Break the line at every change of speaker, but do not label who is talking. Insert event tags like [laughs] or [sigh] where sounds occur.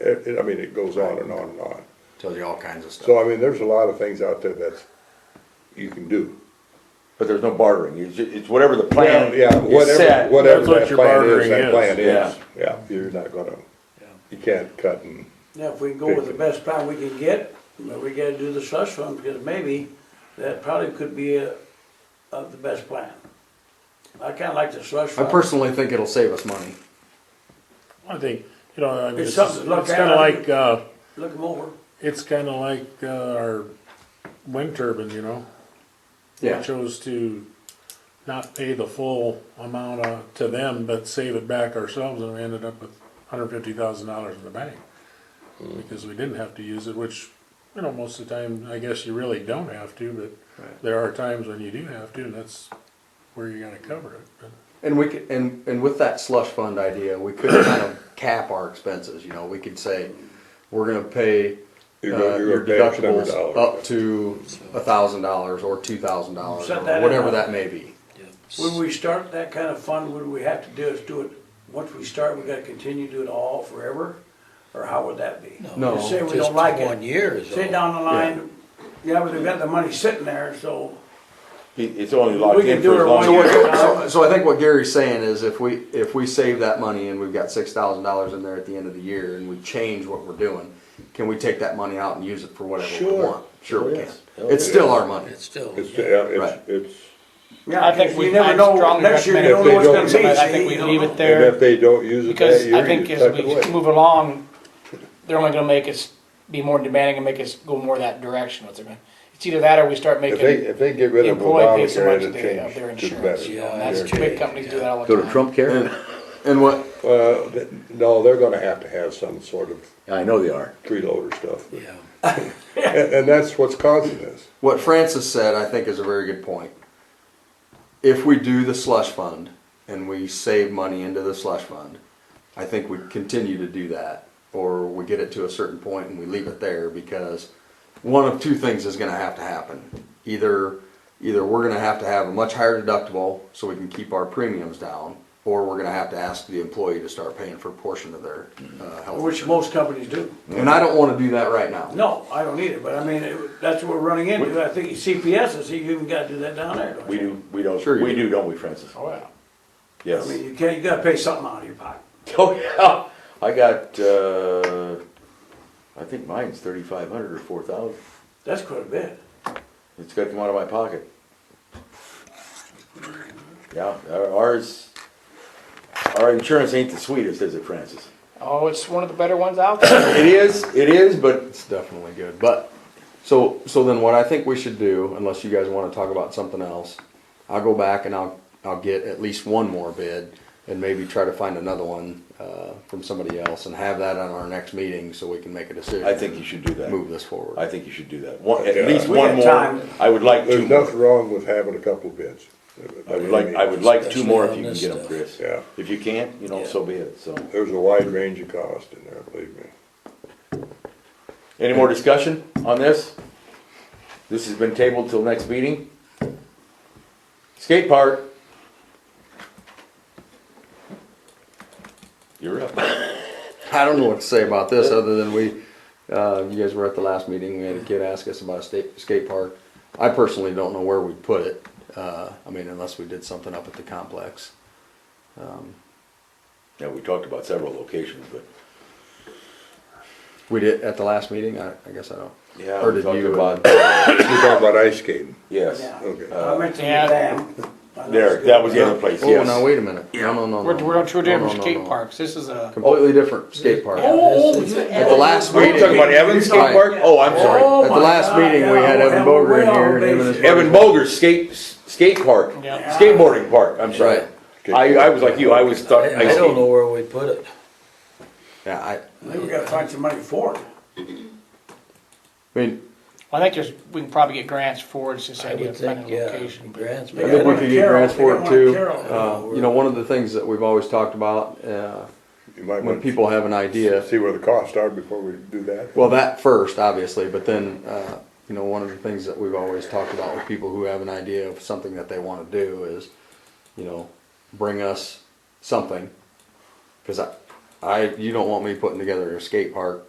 it, it- I mean, it goes on and on and on.
tells you all kinds of
So
stuff.
I mean, there's a lot of things out there that you can do.
But there's no bartering, it's, it's whatever the plan
Yeah, yeah,
is
whatever,
set.
whatever
That's what
that
your
plan is,
bartering
that
is,
plan is,
yeah.
yeah, you're not gonna,
Yeah.
you can't cut and,
Now, if we can go with the best plan we can get, but we gotta do the slush fund, because maybe that probably could be a, of the best plan. I kinda like the slush
I
fund.
personally think it'll save us money.
I think, you know, I mean,
It's
it's,
something to look
it's
at.
kinda like, uh,
Look them over.
it's kinda like, uh, our wind turbine, you know? We chose to not pay the full amount uh, to them, but save it back ourselves, and we ended up with hundred fifty thousand dollars in the bank.
Hmm.
Because we didn't have to use it, which, you know, most of the time, I guess you really don't have to, but
Right.
there are times when you do have to, and that's where you gotta cover it. But
And we could, and, and with that slush fund idea, we could kind of cap our expenses, you know, we could say, we're gonna pay
You're
uh,
gonna- you're
your
gonna pay X number of
deductibles
dollars.
up to a thousand dollars or two thousand dollars,
Set
or
that in
whatever
up.
that may be.
When we start that kind of fund, what do we have to do is do it, once we start, we gotta continue to do it all forever? Or how would that be?
No,
Just say we
Just
don't like
One
it,
year is
say
all.
down the line, yeah, but they've got the money sitting there, so
It- It's only
We
locked
can
in
do
for
it
as long
one
as.
So, what-
year.
so- so I think what Gary's saying is if we, if we save that money and we've got six thousand dollars in there at the end of the year and we change what we're doing, can we take that money out and use it for whatever we
Sure.
want? Sure we can.
Yes.
It's still our money.
It's still.
it's,
yeah.
yeah, it's,
Right.
it's.
Yeah,
I think
because
we-
you never
I'm
know,
strongly
next year you don't
recommend
know
if
what's
they
gonna
don't use
be.
it,
I think we
You don't
leave
know.
it
And if
there,
they don't use it that
because I
year,
think
you
as
tuck
we
it away.
move along, they're only gonna make us be more demanding and make us go more that direction with it. It's either that or we start
If they,
making
if they get rid of
employee pay so
Obamacare,
much
it'll
of their, of their
change to the
insurance,
better.
you
Yeah,
know, and
that's
Uh, that's,
true.
big companies do that all the
Go
time.
to Trump Care?
And, and what,
Well, th- no, they're gonna have to have some sort of
I know they are.
tree loader stuff, but-
Yeah.
[laughs] and, and that's what's causing this.
What Francis said, I think, is a very good point. If we do the slush fund and we save money into the slush fund, I think we continue to do that, or we get it to a certain point and we leave it there because one of two things is going to have to happen. Either, either we're going to have to have a much higher deductible so we can keep our premiums down, or we're going to have to ask the employee to start paying for a portion of their uh, health.
Which
insurance.
most companies do.
And I don't want to do that right now.
No, I don't either, but I mean, it- that's what we're running into. I think CPS is, you even gotta do that down there, don't
We
you?
do, we don't,
Sure you
we
do.
do, don't we, Francis?
Oh, yeah.
I
Yes.
mean, you can't, you gotta pay something out of your pocket.
Oh, yeah, I got, uh, I think mine's thirty-five hundred or four thousand.
That's quite a bit.
It's got to come out of my pocket. Yeah, our- ours, our insurance ain't the sweetest, is it, Francis?
Oh, it's one of the better ones out there.
It is, it is, but
It's definitely good. But so so then what I think we should do, unless you guys want to talk about something else, I'll go back and I'll I'll get at least one more bid and maybe try to find another one uh, from somebody else and have that on our next meeting so we can make a decision.
I think you should do that.
move this forward.
I think you should do that. One, at
Yeah.
least
We
one
got
more.
time.
I would like two
There's
more.
nothing wrong with having a couple of bids.
I would like, I would like two
Especially
more if
on
you can
this
get them,
stuff.
Chris.
Yeah.
If you can't, you know,
Yeah.
so be it, so.
There's a wide range of cost in there, believe me.
Any more discussion on this? This has been tabled till next meeting. Skate park. You're up.
I don't know what to say about this other than we, uh, you guys were at the last meeting. We had a kid ask us about a state, skate park. I personally don't know where we'd put it. Uh, I mean, unless we did something up at the complex.
Yeah, we talked about several locations, but.
We did at the last meeting. I, I guess I don't.
Yeah,
Or
we
did
talked
you-
about-
You're talking about ice skating.
Yes,
Yeah.
Okay.
I mentioned
yeah.
the dam. I know
there,
it's good.
that was the other place,
Oh,
yes.
now wait a minute. No, no, no, no.
We're, we're on two
No,
different
no, no,
skate
no.
parks. This is a.
Completely different skate park. At
Oh, you-
the last
Are you
meeting,
talking about
at
Evans Skate Park? Oh, I'm sorry.
Oh,
the
my
last
God,
meeting, we
yeah,
had
we're
Evan
having
Boger in
way
here
off
and Evan is.
base.
Evan Boger's skate, skate park,
Yeah.
skateboarding park, I'm sorry. I, I was like you, I was thought,
I
I
don't
skated.
know where we put it.
Yeah, I,
I think we gotta find some money for it.
I mean,
I think there's, we can probably get grants for it, it's this
I
idea of
would
finding
think,
a
yeah,
location.
grants.
I
but
think we
Yeah,
could get
Carol,
grants
they
for
don't
it
want
too.
Carol.
Uh, you know, one of the things that we've always talked about, uh,
You might
when
want
people have an idea,
to see where the costs are before we do that.
Well, that first, obviously, but then, uh, you know, one of the things that we've always talked about with people who have an idea of something that they want to do is, you know, bring us something. Because I, I I, you don't want me putting together a skate park